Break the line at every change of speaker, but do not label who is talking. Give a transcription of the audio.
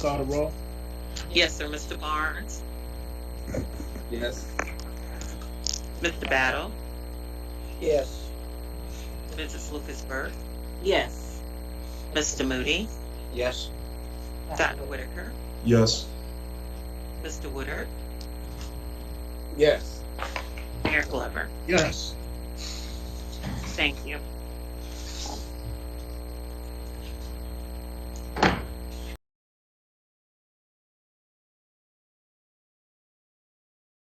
Call the roll.
Yes, sir. Mr. Barnes,
Yes.
Mr. Battle,
Yes.
Mrs. Lucas Burke,
Yes.
Mr. Moody,
Yes.
Dr. Whitaker,
Yes.
Mr. Woodard,
Yes.
Mayor Glover.
Yes.
Thank you.